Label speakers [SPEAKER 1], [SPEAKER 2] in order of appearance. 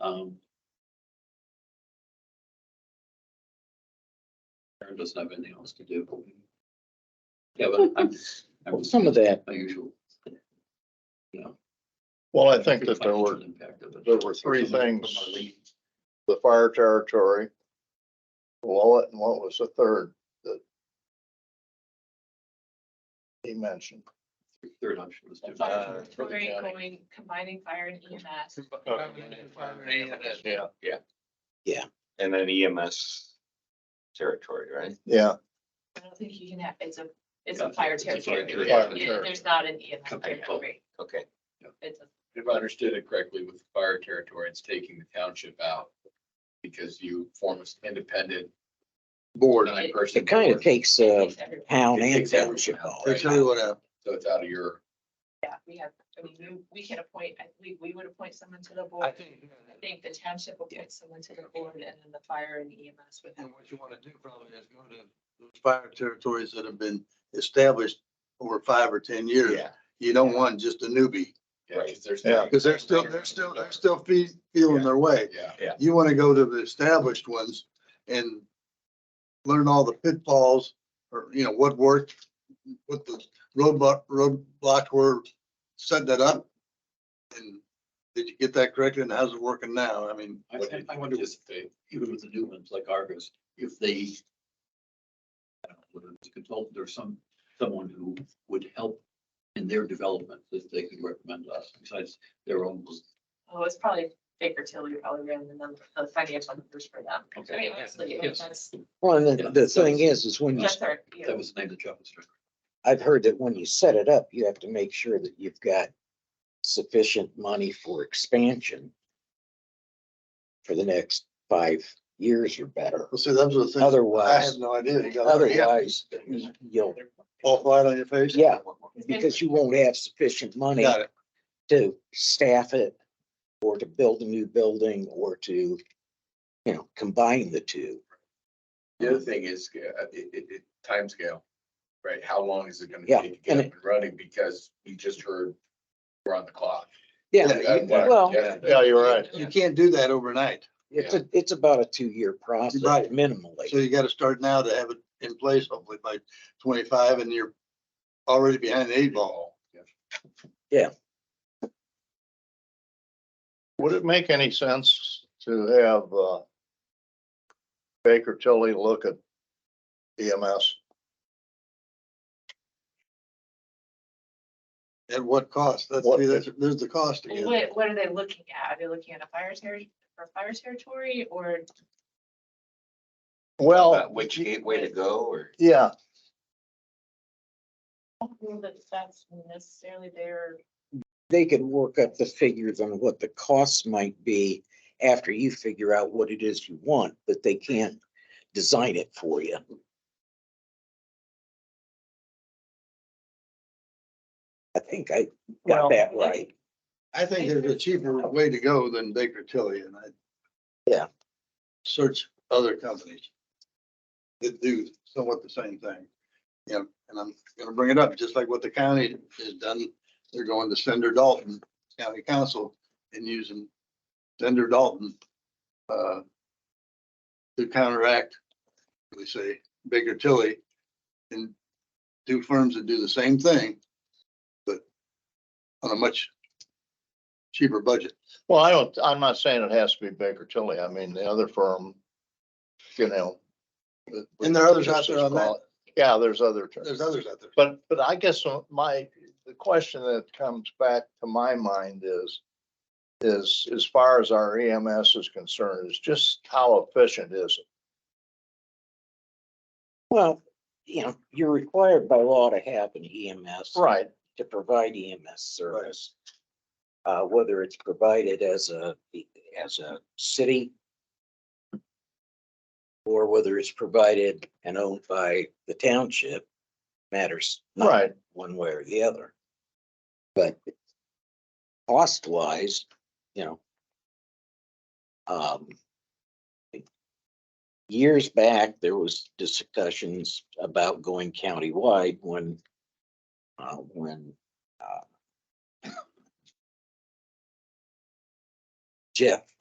[SPEAKER 1] Um. Karen doesn't have anything else to do. Yeah, but I'm, I'm.
[SPEAKER 2] Some of that.
[SPEAKER 1] My usual. Yeah.
[SPEAKER 3] Well, I think that there were,
[SPEAKER 1] Financial impact of it.
[SPEAKER 3] there were three
[SPEAKER 1] From- from
[SPEAKER 3] things.
[SPEAKER 1] our lead.
[SPEAKER 3] the fire territory. Well, and what was the third that? He mentioned.
[SPEAKER 1] Third option was. different.
[SPEAKER 3] Uh,
[SPEAKER 4] Very
[SPEAKER 3] county.
[SPEAKER 4] going, combining fire and EMS.
[SPEAKER 3] Yeah.
[SPEAKER 5] And then EMS territory, right?
[SPEAKER 3] Yeah,
[SPEAKER 4] I don't think you can have, it's a, it's
[SPEAKER 1] Yeah,
[SPEAKER 4] a fire
[SPEAKER 1] it's a fire
[SPEAKER 4] territory.
[SPEAKER 1] territory.
[SPEAKER 3] Fire
[SPEAKER 4] Yeah,
[SPEAKER 3] territory.
[SPEAKER 4] There's not an EMS
[SPEAKER 1] Okay, cool.
[SPEAKER 4] territory.
[SPEAKER 5] Okay.
[SPEAKER 4] It's a
[SPEAKER 6] If I understood it correctly, with fire territory, it's taking the township out because you form an independent board, nine person.
[SPEAKER 2] It kind of takes
[SPEAKER 4] it
[SPEAKER 2] uh
[SPEAKER 4] takes everyone.
[SPEAKER 2] town
[SPEAKER 6] It
[SPEAKER 2] and
[SPEAKER 6] takes everyone
[SPEAKER 2] township
[SPEAKER 6] out,
[SPEAKER 2] off.
[SPEAKER 6] right?
[SPEAKER 3] Tell you what, uh,
[SPEAKER 6] So it's out of your,
[SPEAKER 4] Yeah, we have, I mean, we- we can appoint, I believe we would appoint someone to the board.
[SPEAKER 7] think,
[SPEAKER 4] I think the township appoints someone to the board and then the fire and EMS would have.
[SPEAKER 7] and what you want to do probably is go to those fire territories that have been established over five or ten years.
[SPEAKER 6] yeah,
[SPEAKER 7] You don't want just a newbie,
[SPEAKER 6] yeah, because there's.
[SPEAKER 3] Yeah,
[SPEAKER 7] because they're still, they're still, they're still fe- feeling their way.
[SPEAKER 6] Yeah,
[SPEAKER 7] You want to go to the established ones and learn all the pitfalls, or, you know, what worked, what the roadblock, roadblocks were, set that up. And did you get that correctly, and how's it working now? I mean,
[SPEAKER 1] I,
[SPEAKER 6] What
[SPEAKER 1] I-
[SPEAKER 6] did
[SPEAKER 1] I
[SPEAKER 6] you
[SPEAKER 1] wonder if
[SPEAKER 6] participate?
[SPEAKER 1] even with the new ones like Argos, if they. I don't know, whether it's a consultant or some, someone who would help in their development that they could recommend us besides their own.
[SPEAKER 4] Oh, it's probably Baker Tilly probably ran the number, the financial numbers for them. I mean, honestly,
[SPEAKER 1] Yes.
[SPEAKER 4] that's,
[SPEAKER 2] Well, and
[SPEAKER 1] Yeah,
[SPEAKER 2] the, the
[SPEAKER 1] so
[SPEAKER 2] thing
[SPEAKER 1] it's-
[SPEAKER 2] is, is when you,
[SPEAKER 4] that's our, you
[SPEAKER 1] That
[SPEAKER 4] know,
[SPEAKER 1] was the name of the job. description.
[SPEAKER 2] I've heard that when you set it up, you have to make sure that you've got sufficient money for expansion for the next five years or better.
[SPEAKER 7] well, see, those are the things. I
[SPEAKER 2] Otherwise,
[SPEAKER 7] had no idea. You got it. Yeah.
[SPEAKER 2] otherwise, you'll,
[SPEAKER 7] All flat on your face?
[SPEAKER 2] yeah, because you won't have sufficient money
[SPEAKER 7] Got it.
[SPEAKER 2] to staff it or to build a new building or to, you know, combine the two.
[SPEAKER 6] The other thing is, uh, it, it, it, timescale, right? How long is it gonna
[SPEAKER 2] Yeah,
[SPEAKER 6] take to
[SPEAKER 2] and
[SPEAKER 6] get up and running? Because we just heard we're on the clock.
[SPEAKER 2] Yeah,
[SPEAKER 7] Yeah,
[SPEAKER 2] you-
[SPEAKER 6] That worked
[SPEAKER 2] well,
[SPEAKER 6] yesterday.
[SPEAKER 3] yeah, you're right.
[SPEAKER 7] You can't do that overnight.
[SPEAKER 2] it's a, it's about a two-year process
[SPEAKER 7] Right. So
[SPEAKER 2] minimally.
[SPEAKER 7] you gotta start now to have it in place hopefully by twenty-five and you're already behind the eight ball.
[SPEAKER 3] Would it make any sense to have, uh, Baker Tilly look at E EMS?
[SPEAKER 7] At what cost? That's,
[SPEAKER 3] What-
[SPEAKER 7] see, that's, there's the cost
[SPEAKER 4] well,
[SPEAKER 7] again.
[SPEAKER 4] what, what are they looking at? Are they looking at a fire territory, for fire territory or
[SPEAKER 3] Well,
[SPEAKER 5] About Which gateway to go or?
[SPEAKER 3] yeah,
[SPEAKER 4] I don't know that that's necessarily their,
[SPEAKER 2] They could work up the figures on what the costs might be after you figure out what it is you want, but they can't design it for you. I think I
[SPEAKER 3] Well,
[SPEAKER 2] got that right.
[SPEAKER 7] I think there's a cheaper way to go than Baker Tilly and I.
[SPEAKER 2] Yeah.
[SPEAKER 7] Search other companies that do somewhat the same thing. You know, and I'm gonna bring it up, just like what the county has done. They're going to Sender Dalton County Council and using Sender Dalton uh, to counteract, we say, Baker Tilly and two firms that do the same thing, but on a much cheaper budget.
[SPEAKER 3] well, I don't, I'm not saying it has to be Baker Tilly. I mean, the other firm, you know.
[SPEAKER 7] And there are others out there on that.
[SPEAKER 3] Yeah, there's other.
[SPEAKER 7] There's others out there.
[SPEAKER 3] But, but I guess my, the question that comes back to my mind is, is as far as our EMS is concerned, is just how efficient is it?
[SPEAKER 2] Well, you know, you're required by law to have an E EMS.
[SPEAKER 3] Right.
[SPEAKER 2] to provide EMS service. Uh, whether it's provided as a, as a city. Or whether it's provided and owned by the township matters not
[SPEAKER 3] Right.
[SPEAKER 2] one way or the other. But cost wise, you know. Um. Years back, there was discussions about going countywide when, uh, when, uh. Jeff